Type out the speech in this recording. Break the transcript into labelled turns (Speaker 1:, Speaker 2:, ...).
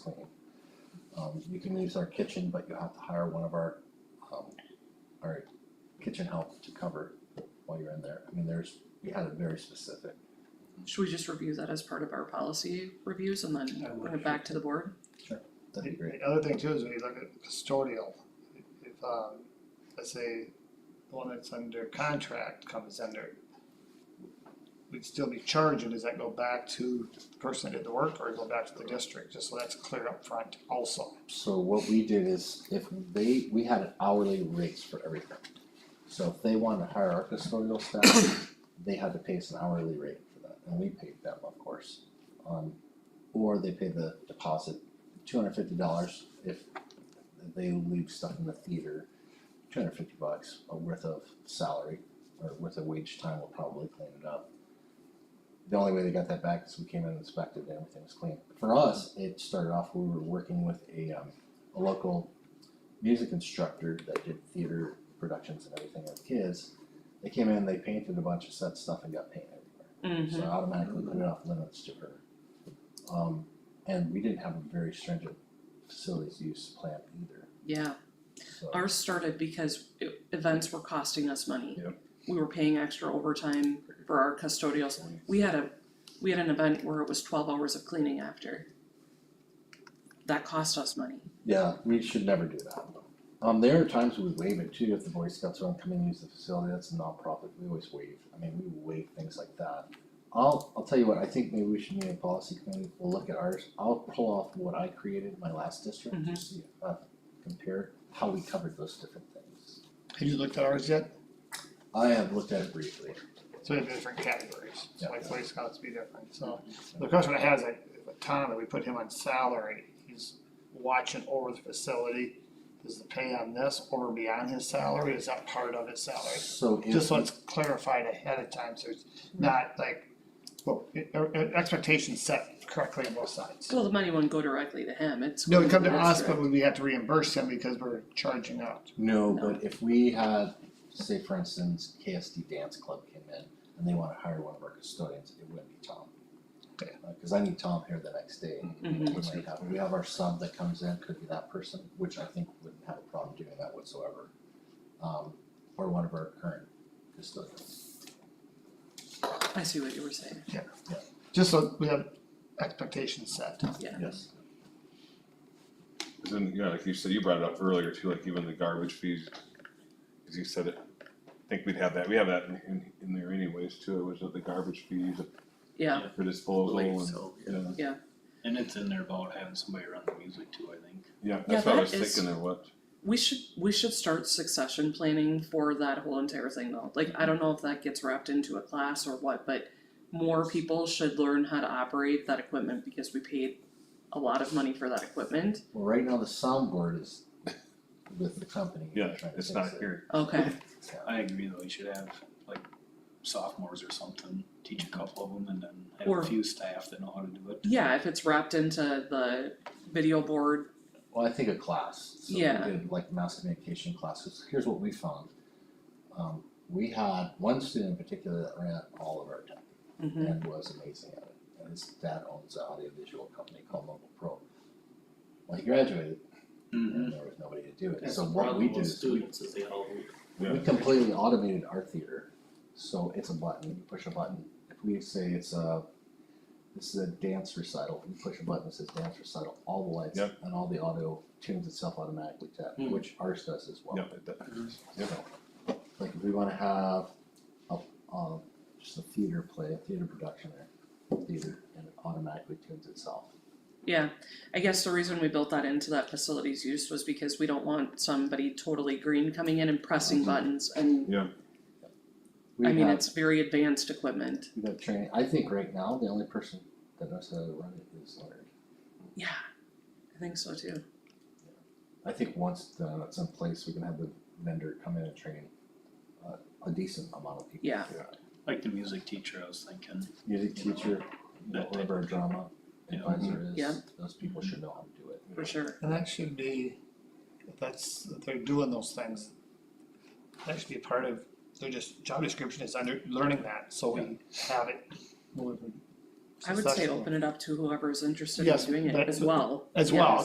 Speaker 1: Um, you can use our kitchen, but you have to hire one of our, um, our kitchen help to cover while you're in there. I mean, there's, we had it very specific.
Speaker 2: Should we just review that as part of our policy reviews and then
Speaker 3: I would.
Speaker 2: bring it back to the board?
Speaker 1: That'd be
Speaker 3: The
Speaker 1: great.
Speaker 3: the other thing too is when you look at custodial, if um, let's say the one that's under contract comes under, we'd still be charging, does that go back to the person that did the work or go back to the district, just so that's clear up front also.
Speaker 1: So what we did is if they, we had an hourly rates for everything. So if they wanted to hire our custodial staff, they had to pay us an hourly rate for that, and we paid them, of course. Um, or they pay the deposit, two hundred fifty dollars if they leave stuff in the theater, two hundred fifty bucks a worth of salary or worth of wage time will probably clean it up. The only way they got that back is we came in and inspected and everything was clean. For us, it started off, we were working with a um a local music instructor that did theater productions and everything with kids. They came in, they painted a bunch of set stuff and got paint everywhere, so I automatically put it off limits to her. Um and we didn't have a very stringent facilities use plan either,
Speaker 2: Yeah,
Speaker 1: so.
Speaker 2: ours started because i- events were costing us money.
Speaker 1: Yep.
Speaker 2: We were paying extra overtime for our custodials. We had a, we had an event where it was twelve hours of cleaning after. That cost us money.
Speaker 1: Yeah, we should never do that. Um, there are times we waive it too, if the Boy Scouts want to come in and use the facility, that's a nonprofit, we always waive, I mean, we waive things like that. I'll, I'll tell you what, I think maybe we should meet a policy committee, we'll look at ours, I'll pull off what I created in my last district,
Speaker 2: Mhm.
Speaker 1: to see, uh, compare how we covered those different things.
Speaker 3: Have you looked at ours yet?
Speaker 1: I have looked at it briefly,
Speaker 3: So we have different categories, so like
Speaker 1: Yeah.
Speaker 3: Boy Scouts be different, so. The question I have is like, if Tom, if we put him on salary, he's watching over the facility, does the pay on this over beyond his salary, is that part of his salary?
Speaker 1: so if,
Speaker 3: Just so it's clarified ahead of time, so it's not like, well, e- e- expectations set correctly on both sides.
Speaker 2: Well, the money wouldn't go directly to him, it's.
Speaker 3: No, it come to
Speaker 2: going
Speaker 3: us,
Speaker 2: district.
Speaker 3: but we have to reimburse him because we're charging out.
Speaker 1: no, but if we had, say for instance, KSD Dance Club came in and they wanna hire one of our custodians, it wouldn't be Tom.
Speaker 3: Okay.
Speaker 1: Uh, Cause I need Tom here the next day.
Speaker 4: Mm-hmm.
Speaker 2: Mhm.
Speaker 1: We might have- we have our sub that comes in, could be that person, which I think wouldn't have a problem doing that whatsoever. Um, or one of our current custodians.
Speaker 2: I see what you were saying,
Speaker 3: Just so we have expectations set.
Speaker 2: yeah.
Speaker 1: Yes.
Speaker 4: Then, yeah, like you said, you brought it up earlier too, like even the garbage fees, as you said it, I think we'd have that, we have that in- in, in there anyways too, was it the garbage fees
Speaker 2: Yeah,
Speaker 4: for disposal
Speaker 5: Believe
Speaker 4: and,
Speaker 5: so, yeah.
Speaker 4: yeah,
Speaker 5: And it's in there about having somebody run the music too, I think.
Speaker 4: yeah,
Speaker 2: Yeah,
Speaker 4: that's what I
Speaker 2: that
Speaker 4: was
Speaker 2: is-
Speaker 4: thinking there, what,
Speaker 2: we should, we should start succession planning for that whole entire thing though, like, I don't know if that gets wrapped into a class or what, but more people should learn how to operate that equipment because we paid a lot of money for that equipment,
Speaker 1: Well, right now the soundboard is with the company. We're
Speaker 4: yeah,
Speaker 1: trying to
Speaker 4: it's
Speaker 1: fix
Speaker 4: not
Speaker 1: it.
Speaker 4: here.
Speaker 2: okay,
Speaker 5: I agree though, you should have like sophomores or something, teach a couple of them and then
Speaker 2: Or-
Speaker 5: have a few staff that know how to do it.
Speaker 2: yeah, if it's wrapped into the video board,
Speaker 1: Well, I think a class, so we
Speaker 2: Yeah.
Speaker 1: did like mass communication classes, here's what we found. Um, we had one student in particular that ran all of our tech.
Speaker 2: mhm,
Speaker 1: and was amazing at it. And his dad owns an audiovisual company called Mobile Pro. Well, he graduated and there was nobody to do it. So what we do is we,
Speaker 5: is they all.
Speaker 1: we completely automated our theater. So it's a button, you push a button. If we say it's a, this is a dance recital, you push a button that says dance recital, all the lights
Speaker 4: Yep.
Speaker 1: and all the audio tunes itself automatically to that,
Speaker 5: Hmm.
Speaker 1: which ours does as well.
Speaker 4: Yeah, it does. Yeah.
Speaker 1: Like if we wanna have a, a, just a theater play, a theater production there, theater, and it automatically tunes itself.
Speaker 2: yeah. I guess the reason we built that into that facilities use was because we don't want somebody totally green coming in and pressing
Speaker 1: Mhm.
Speaker 2: buttons and
Speaker 1: We
Speaker 2: I mean,
Speaker 1: have,
Speaker 2: it's very advanced equipment.
Speaker 1: we have training, I think right now, the only person that knows how to run it is Leonard.
Speaker 2: Yeah, I think so too.
Speaker 1: I think once the, that's in place, we can have the vendor come in and train uh, a decent amount of people.
Speaker 2: Yeah.
Speaker 5: Like the music teacher, I was thinking,
Speaker 1: Music teacher, you know,
Speaker 5: That type
Speaker 1: whatever our drama
Speaker 5: Yeah.
Speaker 1: advisor
Speaker 2: Mm-hmm. Yeah.
Speaker 1: is, those people should know how to do it.
Speaker 2: For sure.
Speaker 3: And that should be, if that's, if they're doing those things, that should be part of, their just, job description is under, learning that, so we have it. moving
Speaker 2: I would say
Speaker 3: successfully.
Speaker 2: open it up to whoever is interested in
Speaker 3: Yes,
Speaker 2: doing it
Speaker 3: that-
Speaker 2: as well.
Speaker 3: As well,